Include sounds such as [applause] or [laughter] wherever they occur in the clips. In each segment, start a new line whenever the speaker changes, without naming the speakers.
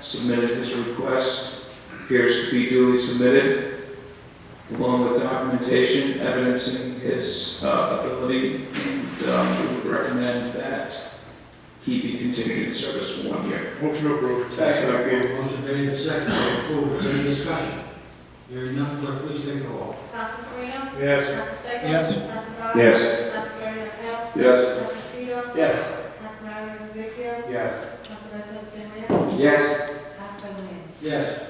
submitted his request, appears to be duly submitted, along with documentation evidencing his uh, ability, and um, we would recommend that he be continued in service for one year.
Motion approved.
Motion made and seconded, to approve, is there any discussion? Hearing none, clerk, please take the roll.
Councilman Corino?
Yes.
Councilman Stieglus?
Yes.
Councilman Bott?
Yes.
Councilman Mario Val?
Yes.
Councilman Seer?
Yes.
Councilman Mario Vecchio?
Yes.
Councilman Vincent Lee?
Yes.
Councilman Lee?
Yes.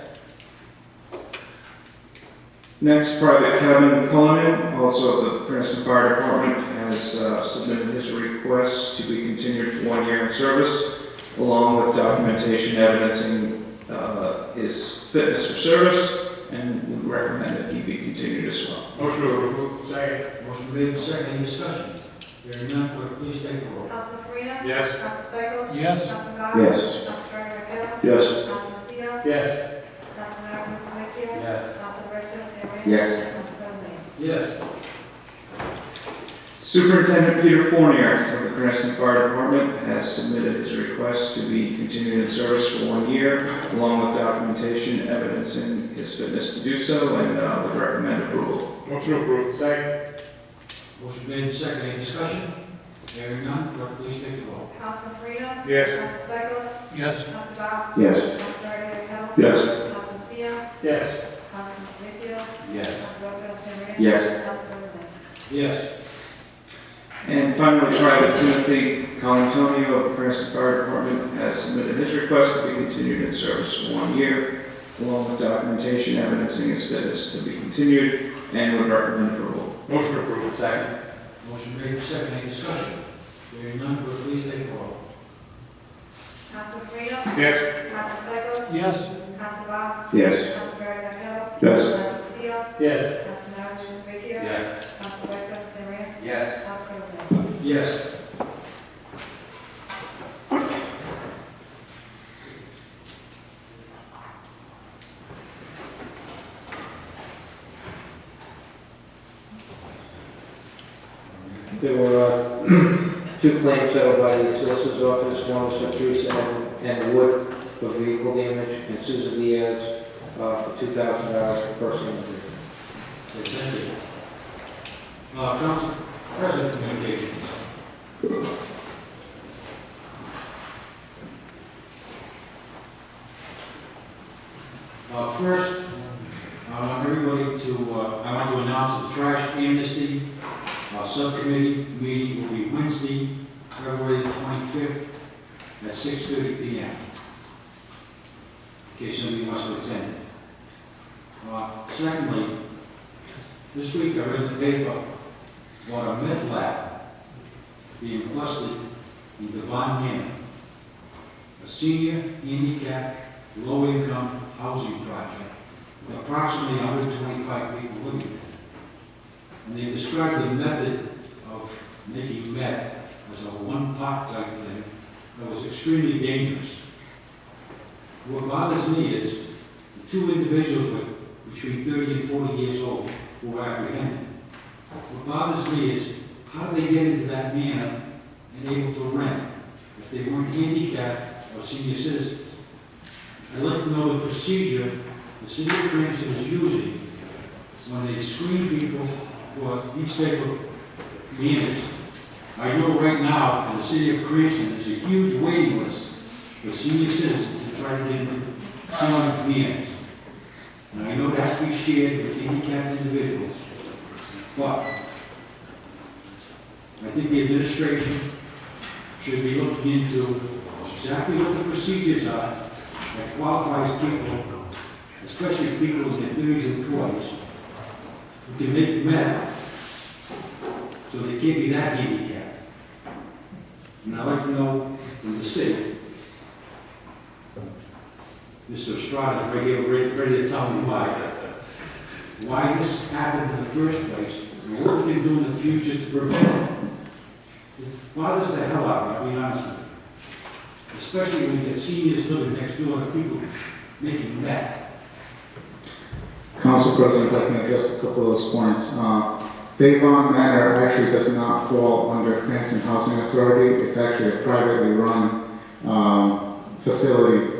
Next, Private Kevin Cullinan, also of the Princeton Fire Department, has uh, submitted his request to be continued for one year in service, along with documentation evidencing uh, his fitness for service, and would recommend that he be continued as well.
Motion approved. Second.
Motion made and seconded, any discussion? Hearing none, clerk, please take the roll.
Councilman Corino?
Yes.
Councilman Stieglus?
Yes.
Councilman Bott?
Yes.
Councilman Mario Val?
Yes.
Councilman Seer?
Yes.
Councilman Mario Vecchio?
Yes.
Councilman Vincent Lee?
Yes.
Councilman Lee?
Yes.
Superintendent Peter Fournier of the Cranston Fire Department has submitted his request to be continued in service for one year, along with documentation evidencing his fitness to do so, and uh, would recommend approval.
Motion approved. Second.
Motion made and seconded, any discussion? Hearing none, clerk, please take the roll.
Councilman Corino?
Yes.
Councilman Stieglus?
Yes.
Councilman Bott?
Yes.
Councilman Mario Val?
Yes.
Councilman Seer?
Yes.
Councilman Vecchio?
Yes.
Councilman Vincent Lee?
Yes.
Councilman Lee?
Yes.
And finally, Private Timothy Colantonio of the Cranston Fire Department has submitted his request to be continued in service for one year, along with documentation evidencing his fitness to be continued, and would recommend approval.
Motion approved. Second.
Motion made and seconded, any discussion? Hearing none, clerk, please take the roll.
Councilman Corino?
Yes.
Councilman Stieglus?
Yes.
Councilman Bott?
Yes.
Councilman Mario Val?
Yes.
Councilman Seer?
Yes.
Councilman Mario Vecchio?
Yes.
Councilman Vincent Lee?
Yes.
Councilman Lee?
Yes.
There were uh, [clears throat] two claims settled by the solicitor's office, one was for Teresa Ann- Ann Wood for vehicle damage, and Susan Diaz uh, for two thousand dollars for personal injury.
Okay, Thank you. Uh, Council President Communications. Uh, First, I want everybody to, uh, I want to announce that the trash amnesty uh, subcommittee meeting will be Wednesday, February 25th at 6:30 PM. In case somebody wants to attend. Uh, Secondly, this week I read in the paper about a meth lab being busted in Devon Manor, a senior handicapped, low-income housing project with approximately 125 people living there. And they described the method of making meth as a one-pot type thing that was extremely dangerous. What bothers me is the two individuals were between 30 and 40 years old who were apprehended. What bothers me is, how did they get into that manor and able to rent if they weren't handicapped or senior citizens? I'd like to know the procedure the city of Cranston is using when they screen people for these type of manors. I know right now, in the city of Cranston, there's a huge waiting list for senior citizens to try to get into some of these manors. And I know it has to be shared with handicapped individuals, but I think the administration should be looking into exactly what the procedures are that qualifies people, especially people in their thirties and forties, who can make meth, so they can't be that handicapped. And I'd like to know from the city, Mr. Estrada's right here, ready, ready to tell me why. uh, Why this happened in the first place, and what we can do in the future to prevent it. It bothers the hell out of me, I'll be honest with you. Especially when you get seniors living next door to people making that.
Council President, if I can address a couple of those points. Uh, Devon Manor actually does not fall under Cranston Housing Authority. It's actually a privately run um, facility